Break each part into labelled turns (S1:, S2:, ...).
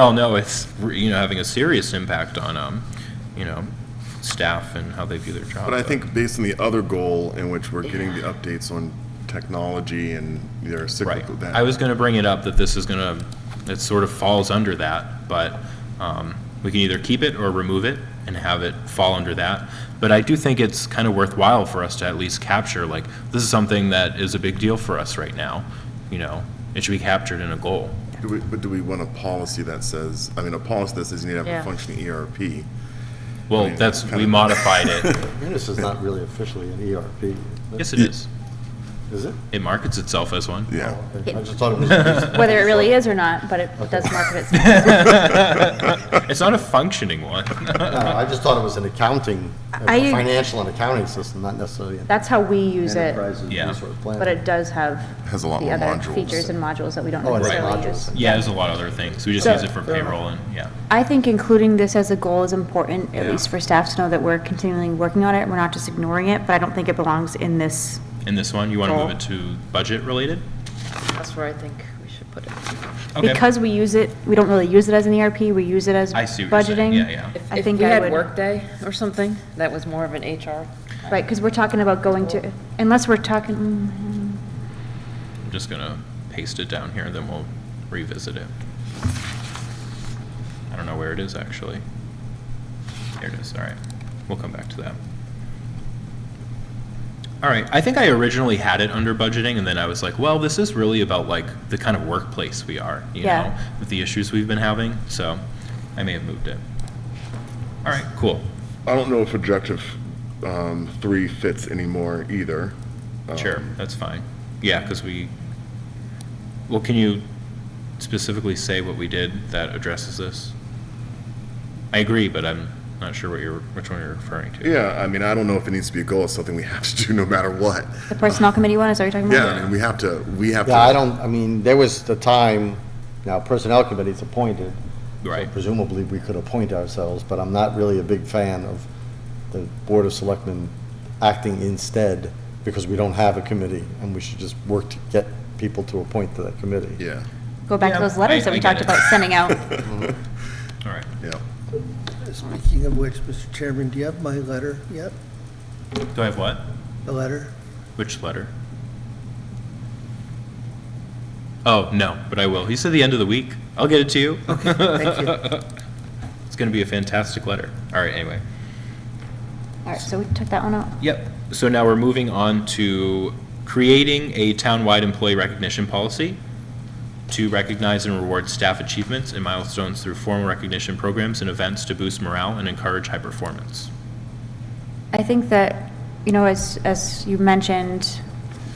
S1: all know it's, you know, having a serious impact on, um, you know, staff and how they view their job.
S2: But I think based on the other goal in which we're getting the updates on technology and their
S1: Right.
S2: cyclical. that-
S1: I was gonna bring it up that this is gonna, it sort of falls under that, but, um, we can either keep it or remove it and have it fall under that. But I do think it's kind of worthwhile for us to at least capture, like, this is something that is a big deal for us right now, you know? It should be captured in a goal.
S2: Do we, but do we want a policy that says, I mean, a policy that says you need to have
S3: Yeah.
S2: a functioning E ERP?
S1: Well, that's, we modified it.
S4: Munis is not really officially an ERP.
S1: Yes, it is.
S4: Is it?
S1: It markets itself as one.
S2: Yeah.
S4: Okay, I just thought it was. a-
S3: Whether it really is or not, but it does market itself.
S1: It's not a functioning one.
S4: No, I just thought it was an accounting, a
S3: I-
S4: financial and accounting system, not necessarily an
S3: That's how we use it,
S4: enterprise and
S1: Yeah.
S4: resource plan.
S3: but it does have
S2: Has a lot
S3: the
S2: more
S3: other
S2: modules.
S3: features and modules that we don't
S4: Oh, and
S3: necessarily
S4: modules.
S3: use.
S1: Yeah, there's a lot of other things. We just
S3: So-
S1: use it for payroll and, yeah.
S3: I think including this as a goal is important, at
S1: Yeah.
S3: least for staff to know that we're continually working on it, we're not just ignoring it, but I don't think it belongs in this.
S1: And this one, you want to move
S3: Goal.
S1: it to budget related?
S5: That's where I think we should put it.
S1: Okay.
S3: Because we use it, we don't really use it as an ERP, we use it as budgeting.
S1: I see what you're saying. Yeah, yeah.
S5: If-
S3: I think I
S5: If we
S3: would-
S5: had Workday or something, that was more of an HR.
S3: Right, because we're talking about going to, unless we're talking, mm,
S1: I'm just going to paste it down here, then we'll revisit it. I don't know where it is, actually. There it is, all right. We'll come back to that. All right, I think I originally had it under budgeting, and then I was like, well, this is really about like the kind of workplace we are, you
S3: Yeah.
S1: know, with the issues we've been having, so I may have moved it. All right, cool,
S2: I don't know if objective, um, three fits anymore either.
S1: sure,
S6: Um,
S1: that's fine. Yeah, because we, well, can you specifically say what we did that addresses this? I agree, but I'm not sure what you're, which one you're referring to.
S2: Yeah, I mean, I don't know if it needs to be a goal, it's something we have to do no matter what.
S3: the personnel committee one, is that what you're talking
S2: Yeah,
S3: about?
S2: I mean, we have to, we have to.
S4: Yeah, I don't, I mean, there was the time, now personnel committee's appointed. so
S1: Right.
S4: Presumably, we could appoint ourselves, but I'm not really a big fan of the Board of Selectmen acting instead because we don't have a committee and we should just work to get people to appoint to that committee.
S2: Yeah,
S3: Go back to
S1: Yeah,
S3: those letters
S1: I-
S3: that
S1: I
S3: we
S1: get
S3: talked
S1: it.
S3: about sending out.
S1: All right,
S2: yeah.
S6: Speaking of which, Mr. Chairman, do you have my letter yet?
S1: do I have what?
S6: The letter?
S1: Which letter? Oh, no, but I will. He said the end of the week. I'll get it to you.
S6: Okay, thank you.
S1: It's going to be a fantastic letter. All right, anyway.
S3: All right, so we took that one out.
S1: Yep. So now we're moving on to creating a townwide employee recognition policy to recognize and reward staff achievements and milestones through formal recognition programs and events to boost morale and encourage high performance.
S3: I think that, you know, as, as you mentioned,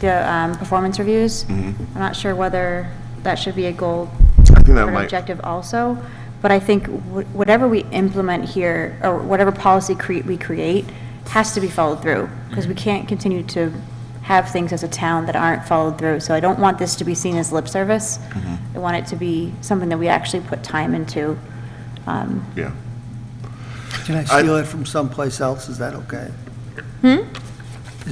S3: the um, performance reviews, I'm not sure whether that should be a goal
S2: Mm-hmm. I think
S3: or
S2: that
S3: an
S2: might,
S3: objective also, but I think wh- whatever we implement here, or whatever policy cre- we create, has to be followed through, because
S2: Mm-hmm.
S3: we can't continue to have things as a town that aren't followed through. So I don't want this to be seen as lip service.
S2: Mm-hmm.
S3: I want it to be something that we actually put time into. Um,
S2: yeah.
S6: Can I steal it from someplace else? Is that okay? Hmm?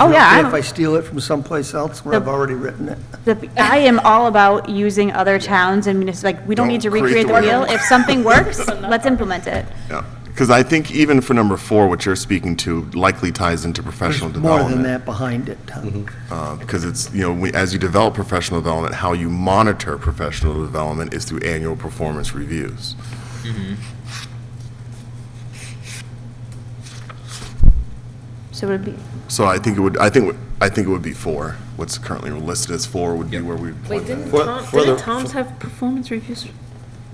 S3: Oh, yeah, I'm-
S6: If I steal it from someplace else where I've
S3: The-
S6: already written it?
S3: The, I am all about using other towns and munis, like, we don't need to
S2: Don't create
S3: recreate the
S2: the
S3: wheel.
S2: wheel.
S3: If something works, let's implement it.
S2: Yeah, because I think even for number four, what you're speaking to likely ties into professional
S6: There's more
S2: development.
S6: than that behind it, Tom.
S2: Because Uh, it's, you know, we- as you develop professional development, how you monitor professional development is through annual performance reviews.
S3: So it would be,
S2: So I think it would, I think, I think it would be four. What's currently listed as four would be where we would
S5: Wait,
S2: point
S5: didn't
S2: that.
S4: For-
S5: Tom,
S4: for
S5: didn't
S4: the-
S5: Tom's have performance reviews?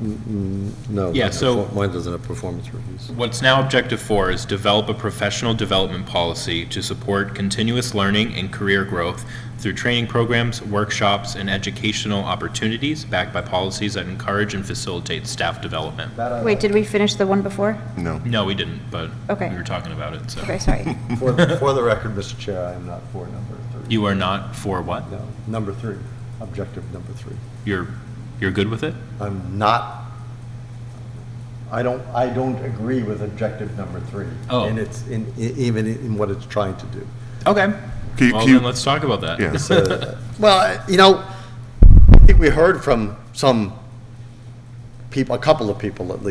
S4: No.
S1: Yeah, so-
S4: Mine doesn't have performance reviews.
S1: What's now objective four is develop a professional development policy to support continuous learning and career growth through training programs, workshops, and educational opportunities backed by policies that encourage and facilitate staff development.
S3: wait, did we finish the one before?
S2: No.
S1: No, we didn't, but
S3: Okay.
S1: we were talking about it, so.
S3: Okay, sorry.
S4: For, the- for the record, Mr. Chair, I am not for number three.
S1: You are not for what?
S4: No, number three, objective number three.
S1: You're, you're good with it?
S4: I'm not, I don't, I don't agree with objective number three.
S1: Oh.
S4: And it's, in e- even in what it's trying to do.
S1: Okay.
S2: Can you-
S1: Well,
S2: can you-
S1: then let's talk about that.
S2: Yeah.
S4: Well, I- you know, I think we heard from some people, a couple of people at least.